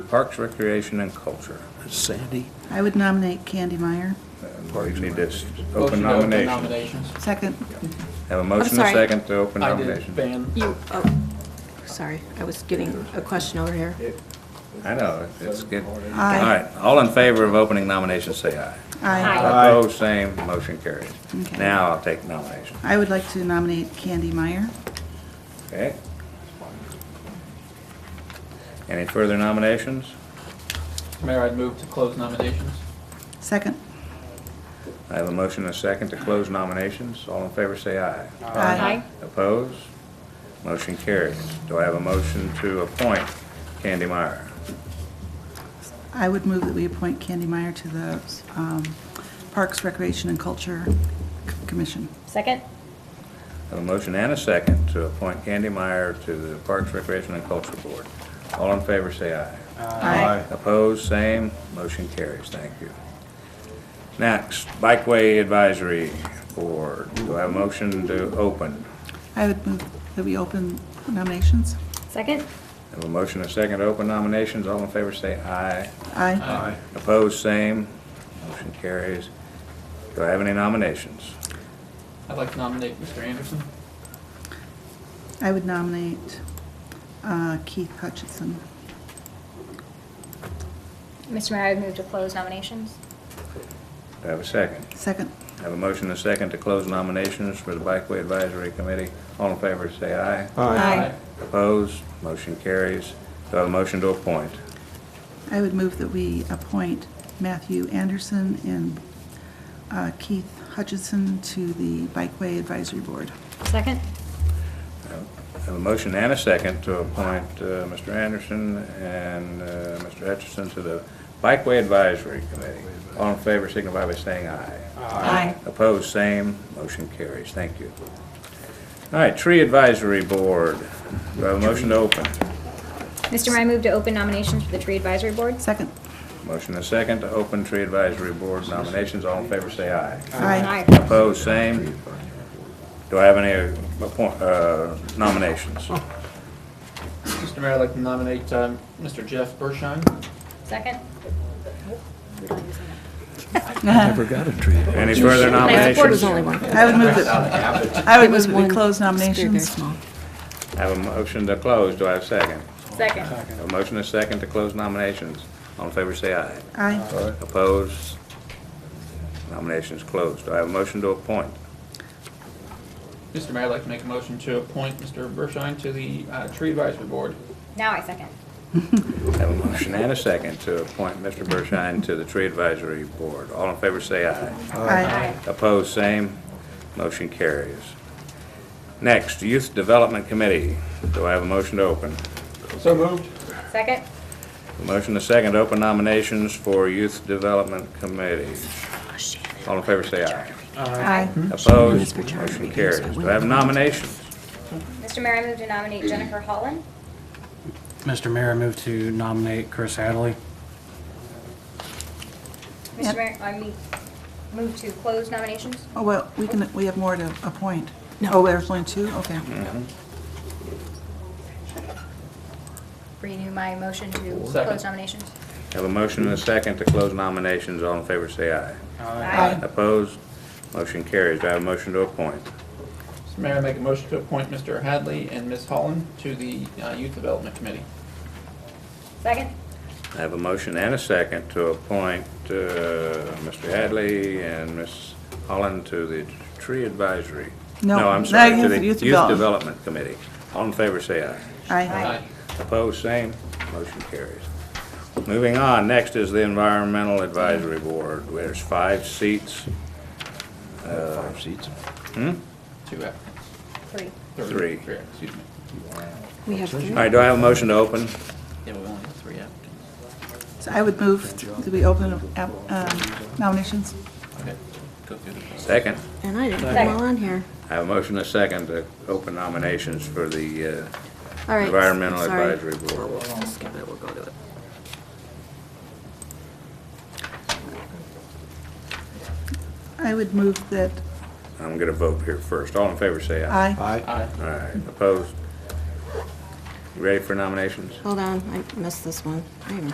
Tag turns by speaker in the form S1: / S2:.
S1: Parks, Recreation, and Culture. Sandy.
S2: I would nominate Candy Meyer.
S1: We need to s-
S3: Motion
S1: open
S3: to open
S1: nominations.
S3: Nominations.
S2: Second.
S1: Have a motion and a
S4: sorry.
S1: second to open
S3: I did
S1: nominations.
S3: ban.
S4: You, oh, sorry, I was getting a question over here.
S1: I know, it's good.
S2: Aye.
S1: All right, all in favor of opening nominations, say aye.
S2: Aye.
S1: Opposed, same, motion carries.
S2: Okay.
S1: Now I'll take nominations.
S2: I would like to nominate Candy Meyer.
S1: Okay? Any further nominations?
S3: Mayor, I'd move to close nominations.
S2: Second.
S1: I have a motion and a second to close nominations. All in favor, say aye.
S2: Aye.
S1: Opposed? Motion carries. Do I have a motion to appoint Candy Meyer?
S2: I would move that we appoint Candy Meyer to the um, Parks, Recreation, and Culture C- Commission.
S5: Second?
S1: I have a motion and a second to appoint Candy Meyer to the Parks, Recreation, and Culture Board. All in favor, say aye.
S2: Aye.
S1: Opposed, same. Motion carries. Thank you. Next, Bikeway Advisory Board. Do I have a motion to open?
S2: I would move that we open nominations.
S5: Second?
S1: I have a motion and a second to open nominations. All in favor, say aye.
S2: Aye.
S1: Opposed, same. Motion carries. Do I have any nominations?
S3: I'd like to nominate Mr. Anderson.
S2: I would nominate uh, Keith Hutchinson.
S5: Mr. Mayor, I would move to close nominations.
S1: Do I have a second?
S2: Second.
S1: I have a motion and a second to close nominations for the Bikeway Advisory Committee. All in favor, say aye.
S2: Aye.
S1: Opposed, motion carries. Do I have a motion to appoint?
S2: I would move that we appoint Matthew Anderson and uh, Keith Hutchinson to the Bikeway Advisory Board.
S5: Second?
S1: I have a motion and a second to appoint uh, Mr. Anderson and uh, Mr. Hutchinson to the Bikeway Advisory Committee. All in favor, signify by saying aye.
S2: Aye.
S1: Opposed, same. Motion carries. Thank you. All right, Tree Advisory Board. Do I have a motion to open?
S5: Mr. Mayor, I move to open nominations for the Tree Advisory Board.
S2: Second.
S1: Motion and a second to open Tree Advisory Board nominations. All in favor, say aye.
S2: Aye.
S1: Opposed, same. Do I have any appoint- uh, nominations?
S4: Oh.
S3: Mr. Mayor, I'd like to nominate um, Mr. Jeff Bershine.
S5: Second?
S6: Never got a tree.
S1: Any further
S4: My support was only
S1: nominations?
S4: one.
S2: I would move that, I would move that we close
S4: It's
S2: nominations.
S4: very, very small.
S1: I have a motion to close. Do I have a second?
S5: Second.
S1: A motion and a second to close nominations. All in favor, say aye.
S2: Aye.
S1: Opposed? Nominations closed. Do I have a motion to appoint?
S3: Mr. Mayor, I'd like to make a motion to appoint Mr. Bershine to the uh, Tree Advisory Board.
S5: Now I second.
S1: I have a motion and a second to appoint Mr. Bershine to the Tree Advisory Board. All in favor, say aye.
S2: Aye.
S1: Opposed, same. Motion carries. Next, Youth Development Committee. Do I have a motion to open?
S3: So moved.
S5: Second?
S1: A Motion to second, to open nominations for Youth Development Committee. All in favor, say aye.
S2: Aye.
S1: Opposed,
S4: for charter
S1: motion
S4: meetings,
S1: carries.
S4: but
S1: Do
S4: when
S1: I have
S4: they're-
S1: nominations?
S5: Mr. Mayor, I move to nominate Jennifer Holland.
S7: Mr. Mayor, I move to nominate Chris Hadley.
S2: Yep.
S5: Mr. Mayor, I me- move to close nominations.
S2: Oh, well, we can, we have more to appoint. Oh, there's only two? Okay.
S5: Renew my motion to
S3: Second.
S5: close nominations.
S1: Have a motion and a second to close nominations. All in favor, say aye.
S2: Aye.
S1: Opposed, motion carries. Do I have a motion to appoint?
S3: Mr. Mayor, I make a motion to appoint Mr. Hadley and Ms. Holland to the uh, Youth Development Committee.
S5: Second?
S1: I have a motion and a second to appoint uh, Mr. Hadley and Ms. Holland to the Tree Advisory.
S2: No,
S1: I'm
S2: no,
S1: sorry, to
S2: Youth-
S1: the
S2: Youth
S1: Youth
S2: Development.
S1: Development Committee. All in favor, say aye.
S2: Aye.
S1: Opposed, same. Motion carries. Moving on, next is the Environmental Advisory Board. There's five seats,
S6: Five seats.
S3: Two applicants.
S5: Three.
S1: Three.
S3: Three, excuse me.
S4: We have
S1: All
S4: three.
S1: right, do I have a motion to open?
S3: Yeah, we only have three applicants.
S2: So I would move, do we open up, um, nominations?
S3: Okay, go through the process.
S1: Second.
S4: And I didn't put them all on here.
S1: I have a motion and a second to open nominations for the uh,
S4: All right.
S1: Environmental
S4: sorry.
S1: Advisory Board.
S4: We'll skip it, we'll go to it.
S2: I would move that,
S1: I'm going to vote here first. All in favor, say aye.
S2: aye.
S3: Aye.
S1: All right, opposed? You Ready for nominations?
S4: Hold on, I missed this one. I am